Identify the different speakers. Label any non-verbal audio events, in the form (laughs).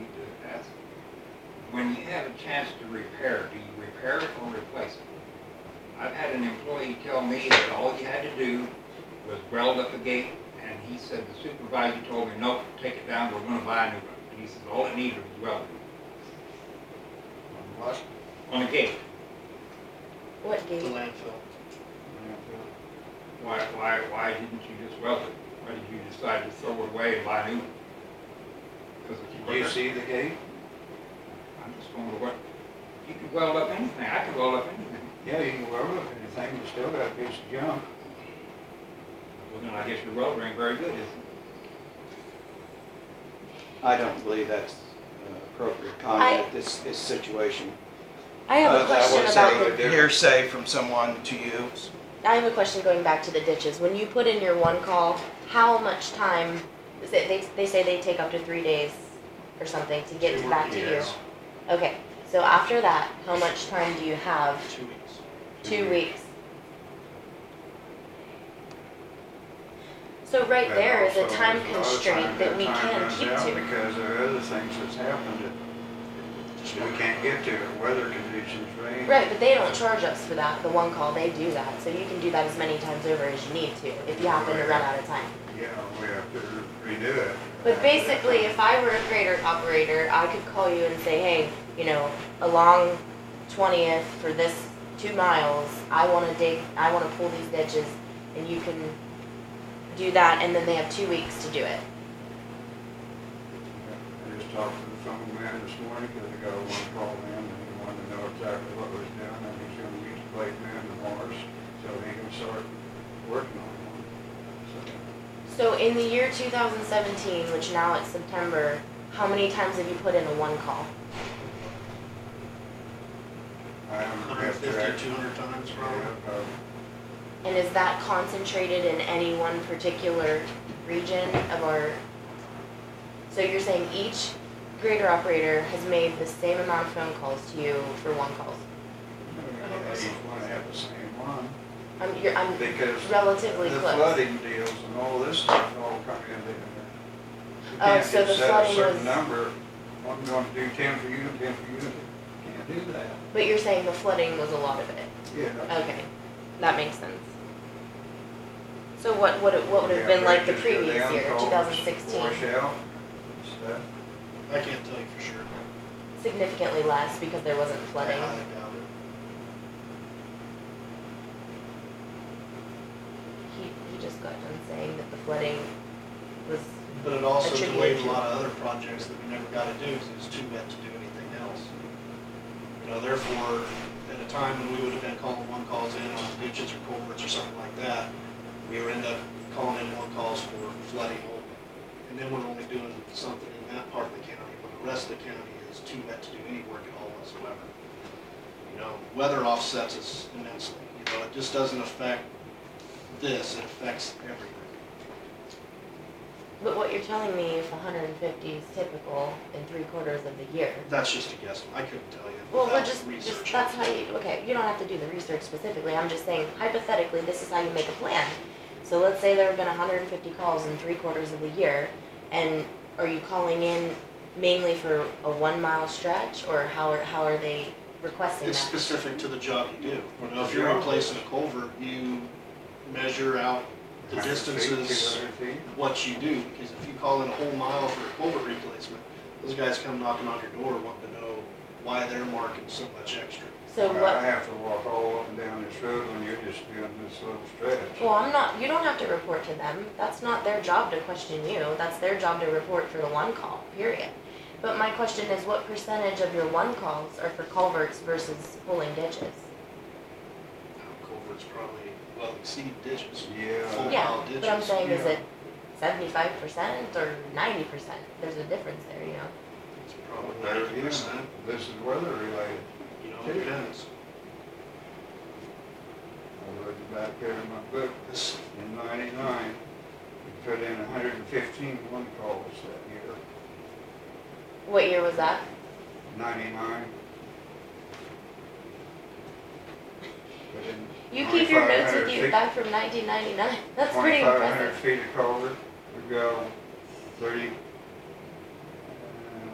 Speaker 1: a chance to repair, do you repair it or replace it? I've had an employee tell me that all he had to do was weld up a gate, and he said, the supervisor told me, nope, take it down, we're gonna buy a new one. And he says, all it needed was welding
Speaker 2: What?
Speaker 1: on a gate.
Speaker 3: What
Speaker 2: The
Speaker 3: gate?
Speaker 2: landfill.
Speaker 1: Why, why, why didn't you just weld it? Why did you decide to throw it away and buy a new one? Because it's
Speaker 2: Do you
Speaker 1: quicker.
Speaker 2: see the gate?
Speaker 1: I'm just wondering what, you could weld up anything, I could weld up anything.
Speaker 2: Yeah, you can weld up anything, you still got a piece of junk.
Speaker 1: Well, then I guess your welder ain't very good, is it?
Speaker 4: I don't believe that's uh, appropriate comment at this, this situation.
Speaker 3: I have a
Speaker 4: Uh, that
Speaker 3: question
Speaker 4: was
Speaker 3: about
Speaker 4: a
Speaker 3: the,
Speaker 4: Hearsay from someone to you.
Speaker 3: I have a question going back to the ditches. When you put in your one call, how much time, is it- they, they say they take up to three days or something to get
Speaker 2: Two
Speaker 3: back to you?
Speaker 2: weeks.
Speaker 3: Okay, so after that, how much time do you have?
Speaker 2: Two weeks.
Speaker 3: Two weeks. So right there is
Speaker 2: And
Speaker 3: a
Speaker 2: also,
Speaker 3: time
Speaker 2: there's a lot of
Speaker 3: constraint
Speaker 2: times
Speaker 3: that we
Speaker 2: time
Speaker 3: can
Speaker 2: runs
Speaker 3: keep
Speaker 2: out
Speaker 3: to.
Speaker 2: Because there are other things that's happened that we can't get to, weather conditions, rain.
Speaker 3: Right, but they don't charge us for that, the one call, they do that, so you can do that as many times over as you need to, if you happen to run out of time.
Speaker 2: Yeah, we have to redo it.
Speaker 3: But basically, if I were a crater operator, I could call you and say, hey, you know, along twentieth for this two miles, I wanna dig, I wanna pull these ditches, and you can do that, and then they have two weeks to do it.
Speaker 2: I just talked to the phone man this morning, because I got a one call in, and he wanted to know exactly what was done, and he's gonna use the blade man tomorrow, so he can start working on one. So,
Speaker 3: So in the year two thousand seventeen, which now it's September, how many times have you put in a one call?
Speaker 2: I haven't
Speaker 5: Hundred
Speaker 2: kept track.
Speaker 5: fifty, two hundred times probably.
Speaker 2: Yeah, uh,
Speaker 3: And is that concentrated in any one particular region of our? So you're saying each grader operator has made the same amount of phone calls to you for one calls?
Speaker 2: I just wanna have the same one,
Speaker 3: I'm, you're, I'm
Speaker 2: because
Speaker 3: relatively
Speaker 2: the
Speaker 3: close.
Speaker 2: flooding deals and all this stuff all come in there. You
Speaker 3: Oh,
Speaker 2: can't
Speaker 3: so
Speaker 2: just
Speaker 3: the
Speaker 2: set a
Speaker 3: flooding
Speaker 2: certain
Speaker 3: was-
Speaker 2: Number, I'm gonna do ten for you, and ten for you, can't do that,
Speaker 3: But you're saying the flooding was a lot of it?
Speaker 2: yeah.
Speaker 3: Okay, that makes sense. So what, what, it- what would have been like the previous year, two thousand sixteen?
Speaker 2: Wash out, stuff.
Speaker 5: I can't tell you for sure.
Speaker 3: Significantly less because there wasn't flooding?
Speaker 5: I doubt it.
Speaker 3: He, he just got done saying that the flooding was,
Speaker 5: But it also delayed a
Speaker 3: Attributed to-
Speaker 5: lot of other projects that we never got to do because it was too wet to do anything else. You know, therefore, at a time when we would have been calling one calls in on ditches or culverts or something like that, we would end up calling in one calls for flooding only. And then we're only doing something in that part of the county, but the rest of the county is too wet to do any work at all whatsoever. You know, weather offsets us immensely, you know, it just doesn't affect this, it affects everything.
Speaker 3: but what you're telling me, if hundred and fifty is typical in three quarters of the year.
Speaker 5: That's just a guess. I couldn't tell you.
Speaker 3: Well, we're
Speaker 5: without
Speaker 3: just, just,
Speaker 5: researching.
Speaker 3: that's how you, okay, you don't have to do the research specifically, I'm just saying hypothetically, this is how you make a plan. So let's say there have been hundred and fifty calls in three quarters of the year, and are you calling in mainly for a one mile stretch, or how are, how are they requesting
Speaker 5: It's
Speaker 3: that?
Speaker 5: specific to the job you do. You know, if you're replacing a culvert, you measure out the
Speaker 2: Hundred feet,
Speaker 5: distances,
Speaker 2: 200 feet.
Speaker 5: what you do, because if you call in a whole mile for a culvert replacement, those guys come knocking on your door wanting to know why they're marking so much extra.
Speaker 3: So
Speaker 2: I
Speaker 3: what,
Speaker 2: have to walk all up and down this road when you're just doing this little stretch.
Speaker 3: well, I'm not, you don't have to report to them, that's not their job to question you, that's their job to report for the one call, period. But my question is, what percentage of your one calls are for culverts versus pulling ditches?
Speaker 5: Culverts probably well exceed ditches.
Speaker 2: Yeah.
Speaker 3: Yeah, but I'm saying is
Speaker 2: yeah.
Speaker 3: it seventy-five percent or ninety percent? There's a difference there, you know?
Speaker 5: It's probably
Speaker 2: Better,
Speaker 5: ninety
Speaker 2: yeah,
Speaker 5: percent,
Speaker 2: This is weather related.
Speaker 5: you know, it depends.
Speaker 2: I wrote it back there in my book
Speaker 5: This,
Speaker 2: in ninety-nine. We put in 115 one calls that year,
Speaker 3: What year was that?
Speaker 2: ninety-nine. Put in
Speaker 3: You keep your notes
Speaker 2: 2,500
Speaker 3: with you
Speaker 2: feet-
Speaker 3: back (laughs) from nineteen ninety-nine. That's pretty
Speaker 2: 2,500
Speaker 3: impressive.
Speaker 2: feet of culvert, we go thirty, uh,